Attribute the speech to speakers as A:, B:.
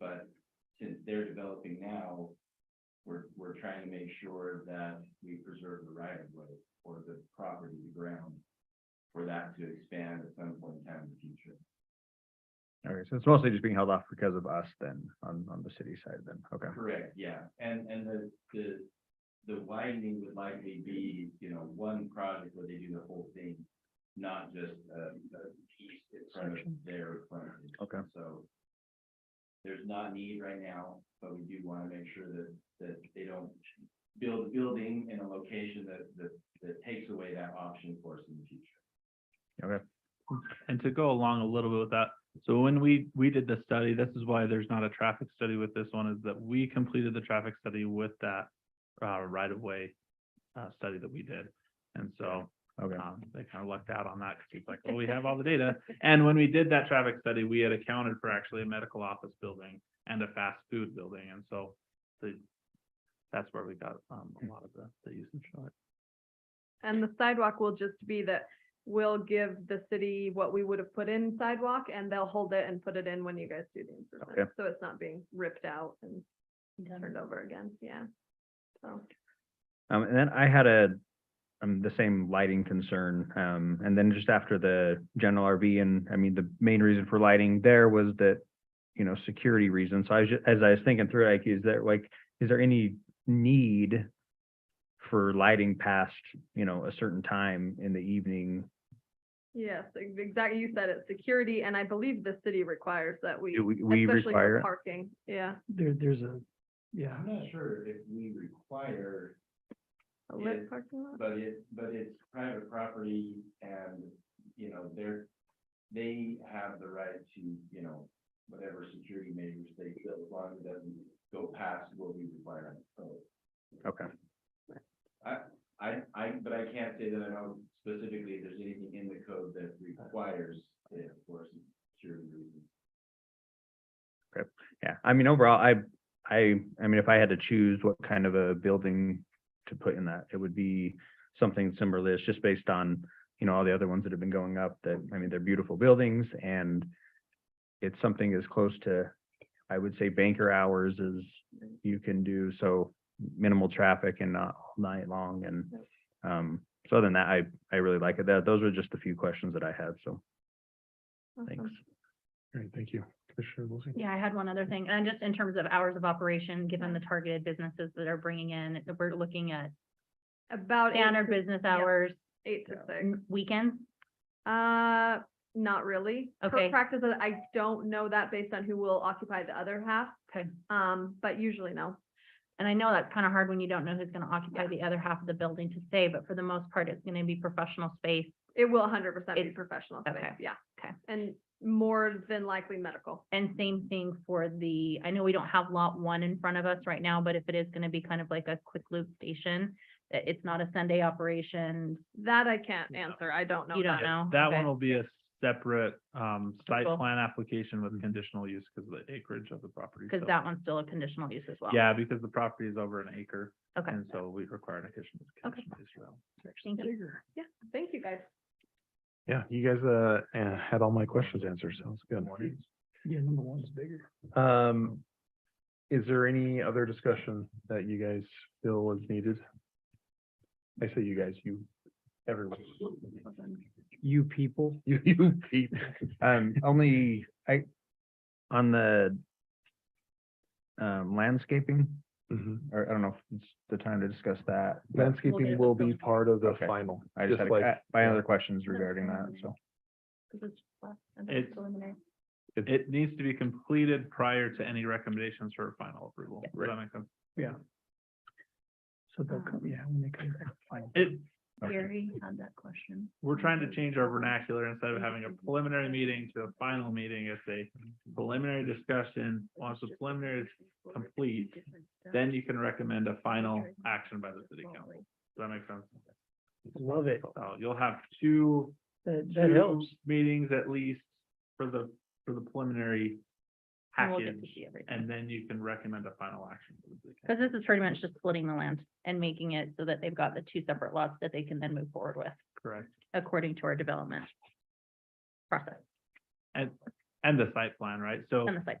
A: but since they're developing now, we're, we're trying to make sure that we preserve the right of way or the property, the ground for that to expand at some point in time in the future.
B: Okay, so it's mostly just being held off because of us then, on, on the city side then, okay.
A: Correct, yeah, and, and the, the, the widening would likely be, you know, one project where they do the whole thing, not just, uh, a piece in front of
B: Section.
A: their frontage.
B: Okay.
A: So there's not need right now, but we do want to make sure that, that they don't build a building in a location that, that, that takes away that option for us in the future.
C: And to go along a little bit with that, so when we, we did the study, this is why there's not a traffic study with this one, is that we completed the traffic study with that uh, right-of-way uh, study that we did. And so
B: Okay,
C: um, they kind of lucked out on that because it's like, well, we have all the data. And when we did that traffic study, we had accounted for actually a medical office building and a fast food building. And so the, that's where we got um, a lot of the, the usage of it.
D: And the sidewalk will just be that we'll give the city what we would have put in sidewalk and they'll hold it and put it in when you guys do the improvement.
B: Okay.
D: So it's not being ripped out and turned over again. Yeah. So
B: um, and then I had a, um, the same lighting concern, um, and then just after the general RV and, I mean, the main reason for lighting there was that, you know, security reasons. So I was, ju- as I was thinking through, like, is there, like, is there any need for lighting past, you know, a certain time in the evening?
D: yes, ex- exactly. You said it, security. And I believe the city requires that we,
B: Do we, we
D: especially
B: require?
D: for
B: it?
D: parking. Yeah.
E: There, there's a, yeah,
A: I'm not sure if we require
D: A
A: Yeah.
D: lit parking lot.
A: But it, but it's private property and, you know, they're, they have the right to, you know, whatever security measures they feel as long as it doesn't go past what we require. So
B: Okay,
A: I, I, but I can't say that I know specifically if there's anything in the code that requires it for security reasons.
B: yeah, I mean, overall, I, I, I mean, if I had to choose what kind of a building to put in that, it would be something similar to this, just based on, you know, all the other ones that have been going up, that, I mean, they're beautiful buildings, and it's something as close to, I would say banker hours as you can do, so minimal traffic and not all night long, and, um, so other than that, I, I really like it, that, those were just a few questions that I had, so, thanks.
D: Awesome.
E: great, thank you. Commissioner Wilson?
F: Yeah, I had one other thing, and just in terms of hours of operation, given the targeted businesses that are bringing in, that we're looking at
D: About eight
F: standard
D: to-
F: business
D: yeah,
F: hours,
D: Eight to six.
F: n- weekends.
D: Uh, not really. Per
F: Okay.
D: Practice, uh, I don't know that based on who will occupy the other half.
F: Okay.
D: Um, but usually no.
F: And I know that's kind of hard when you don't know who's going to occupy the other half of the building to stay, but for the most part, it's going to be professional space.
D: It will hundred percent be
F: It's-
D: professional space,
F: okay,
D: yeah.
F: okay.
D: And more than likely medical.
F: And same thing for the, I know we don't have lot one in front of us right now, but if it is going to be kind of like a quick loop station, that it's not a Sunday operation,
D: That I can't
C: Yeah.
D: answer. I don't know.
F: You don't
D: that.
C: Yeah,
F: know?
C: That
F: Okay.
C: one will be a separate um site
F: Cool.
C: plan application with
B: Mhm.
C: conditional use because of the acreage of the property.
F: because
C: so-
F: that one's still a conditional use as well.
C: Yeah, because the property is over an acre.
F: Okay.
C: And so we require an additional.
F: Okay.
C: conditional use for that one.
F: Thank you.
E: Bigger.
D: Thank you, guys.
E: Yeah, you guys, uh, uh, had all my questions answered, so it's good. Yeah, number one's bigger. Um, is there any other discussion that you guys feel is needed? I say you guys, you, everyone.
B: You people.
E: You, you, people.
B: Um, only, I, on the um, landscaping,
E: Mhm.
B: or I don't know if it's the time to discuss that. but
F: get
E: Landscaping
F: it.
E: will be part of the
B: Okay.
E: final,
B: I just
E: just
B: had,
E: like.
B: a- I had other questions
F: No,
B: regarding
F: no,
B: that,
F: no.
B: so.
C: It's- It needs to be completed prior to any recommendations for final approval. Does
B: Right.
C: that make sense?
E: So
F: they'll come-
E: yeah, when they come back, final.
C: It,
B: okay.
F: Gary had that question.
C: we're trying to change our vernacular instead of having a preliminary meeting to a final meeting. It's a preliminary discussion. Once the preliminary is complete, then you can recommend a final action by the city council. Does that make sense?
E: Love it.
C: So you'll have two
E: That,
C: two Meetings at least for the, for the preliminary
F: And we'll get
C: package,
F: to see everything.
C: and then you can recommend a final action. for the city
F: Because
C: council.
F: this is pretty much just splitting the land and making it so that they've got the two separate lots that they can then move forward with
C: Correct.
F: according to our development process
C: And the site plan, right? So
F: and the site.